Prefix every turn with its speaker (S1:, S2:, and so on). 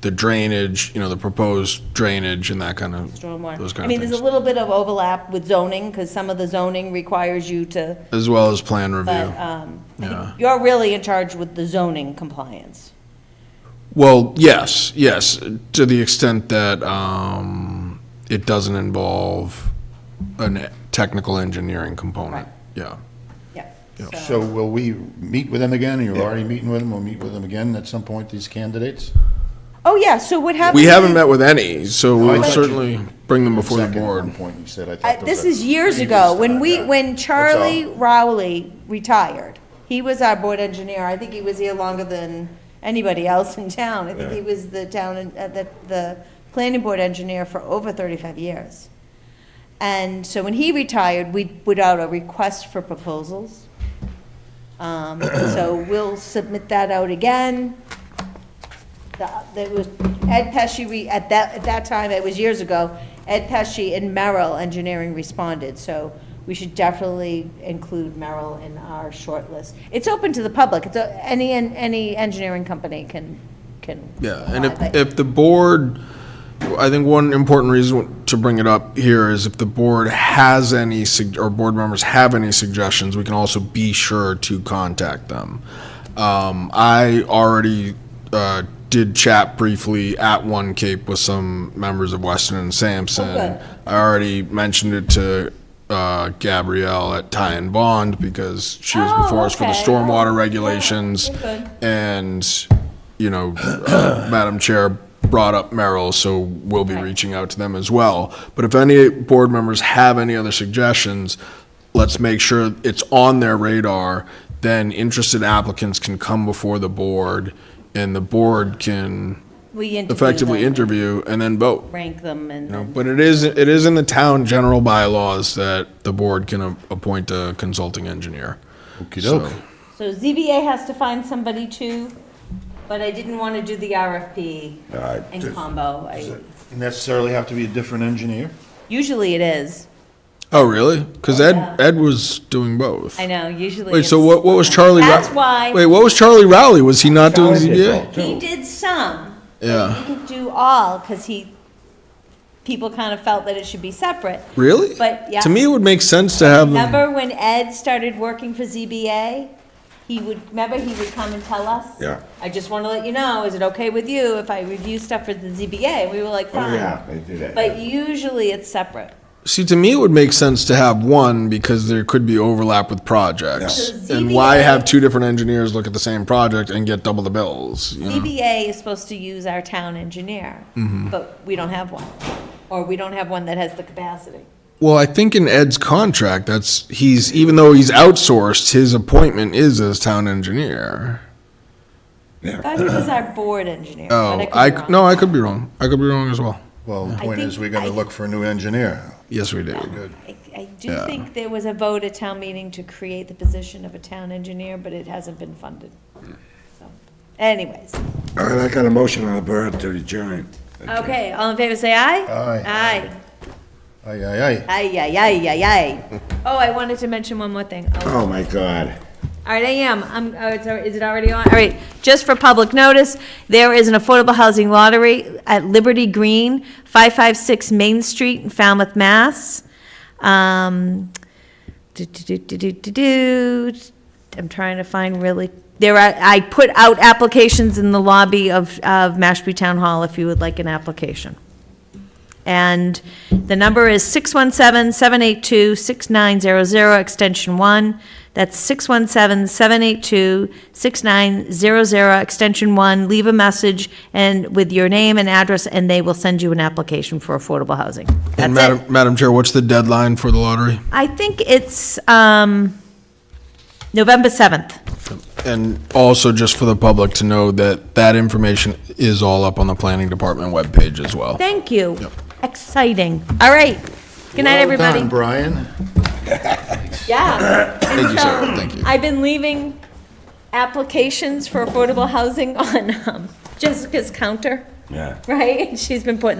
S1: the drainage, you know, the proposed drainage and that kind of, those
S2: Stormwater. I
S1: kind
S2: mean,
S1: of
S2: there's a
S1: things.
S2: little bit of overlap with zoning, because some of the zoning requires you to,
S1: As well as plan review.
S2: but, um, I think
S1: Yeah.
S2: you're really in charge with the zoning compliance.
S1: Well, yes, yes, to the extent that um, it doesn't involve a technical engineering component. Yeah.
S2: Yeah.
S3: So will we meet with them again? You're already meeting with them. We'll meet with them again at some point, these candidates?
S2: Oh, yeah, so what happens?
S1: We haven't
S2: is-
S1: met with any, so
S3: I
S1: we'll
S3: thought you-
S1: certainly bring them before the
S3: Second at one
S1: board.
S3: point you said, I thought.
S2: I-
S3: there
S2: Uh, This
S3: was a
S2: is years
S3: previous
S2: ago,
S3: time,
S2: when we,
S3: yeah.
S2: when
S3: That's all.
S2: Charlie Rowley retired, he was our board engineer, I think he was here longer than anybody else in town. I think he was the town, en- uh, the, the planning board engineer for over thirty-five years. And so when he retired, we put out a request for proposals. Um, so we'll submit that out again. The- That was, Ed Pesci, re- at that, at that time, it was years ago, Ed Pesci and Merrill Engineering responded, so we should definitely include Merrill in our short list. It's open to the public, it's, a- any, any engineering company can, can.
S1: Yeah, and
S2: apply,
S1: if,
S2: but-
S1: if the board, I think one important reason to bring it up here is if the board has any, sug- or board members have any suggestions, we can also be sure to contact them. Um, I already, uh, did chat briefly at One Cape with some members of Weston and
S2: Oh, good.
S1: Sampson. I already mentioned it to, uh, Gabrielle at Ty and Bond because she was
S2: Oh,
S1: before us for the
S2: okay.
S1: stormwater
S2: Oh,
S1: regulations.
S2: yeah, good.
S1: And, you know, uh, Madam Chair brought up Merrill, so we'll be reaching out to them as well. But if any board members have any other suggestions, let's make sure it's on their radar. Then interested applicants can come before the board, and the board can
S2: We interview
S1: effectively
S2: them,
S1: interview and then vote.
S2: Rank them and.
S1: You know,
S2: then-
S1: But it is, it is in the town general bylaws that the board can a- appoint a consulting engineer.
S3: Okey-doke.
S2: So ZBA has to find somebody too, but I didn't want to do the RFP
S4: Alright,
S2: in
S4: just-
S2: combo. I-
S3: Necessarily have to be a different engineer?
S2: Usually it is.
S1: Oh, really? Because Ed, Ed was doing both.
S2: I know, usually.
S1: Wait, so
S2: it's-
S1: what, what was Charlie? Row-
S2: That's why.
S1: Wait, what was Charlie Rowley? Was he not doing
S4: Charlie did
S1: ZBA?
S4: both,
S2: He
S4: too.
S2: did some. but
S1: Yeah.
S2: He didn't do all because he, people kind of felt that it should be separate.
S1: Really?
S2: But, yeah.
S1: To me, it would make sense to have them.
S2: Remember when Ed started working for ZBA? He would, remember he would come and tell us?
S4: Yeah.
S2: I just want to let you know, is it okay with you if I review stuff for the ZBA? We were like,
S4: Oh,
S2: fine.
S4: yeah, they do that.
S2: But usually it's separate.
S1: See, to me, it would make sense to have one because there could be overlap with projects.
S2: Yeah.
S1: And why
S2: ZBA
S1: have two different engineers look at the same project and get double the bills? you know?
S2: ZBA is supposed to use our town engineer,
S1: Mm-hmm.
S2: but we don't have one, or we don't have one that has the capacity.
S1: Well, I think in Ed's contract, that's, he's, even though he's outsourced, his appointment is as town engineer.
S2: I thought he was our board engineer,
S1: Oh,
S2: but I
S1: I,
S2: could be wrong.
S1: no, I could be wrong. I could be wrong as well.
S3: Well, the
S2: I
S3: point
S2: think
S3: is, we're gonna
S2: I-
S3: look for a new engineer.
S1: Yes, we did.
S2: I, I do think there was a vote at town meeting to create the position of a town engineer, but it hasn't been funded. So, Anyways,
S4: All right, I got a motion on the board to adjourn.
S2: okay, all in favor, say aye?
S3: Aye.
S2: Aye,
S3: Aye, aye, aye.
S2: aye, aye, aye, aye, aye. Oh, I wanted to mention one more thing. Oh,
S4: Oh, my God.
S2: All right, I am. I'm, oh, it's, al- is it already on? All right, just for public notice, there is an affordable housing lottery at Liberty Green, 556 Main Street in Falmouth, Mass. Um, do, do, do, do, do, do, do. I'm trying to find really, there are, I put out applications in the lobby of, of Mashpee Town Hall if you would like an application. And the number is 617-782-6900, extension 1. That's 617-782-6900, extension 1. Leave a message and with your name and address, and they will send you an application for affordable housing.
S1: And
S2: That's it.
S1: Madam, Madam Chair, what's the deadline for the lottery?
S2: I think it's um, November 7th.
S1: And also, just for the public to know that that information is all up on the planning department webpage as well.
S2: Thank you. Exciting. All right. Good night,
S3: Well
S2: everybody.
S3: done, Brian.
S2: Yeah. And
S1: Thank you, Sarah.
S2: so,
S1: Thank you.
S2: I've been leaving applications for affordable housing on um, Jessica's counter,
S4: Yeah.
S2: right? She's been putting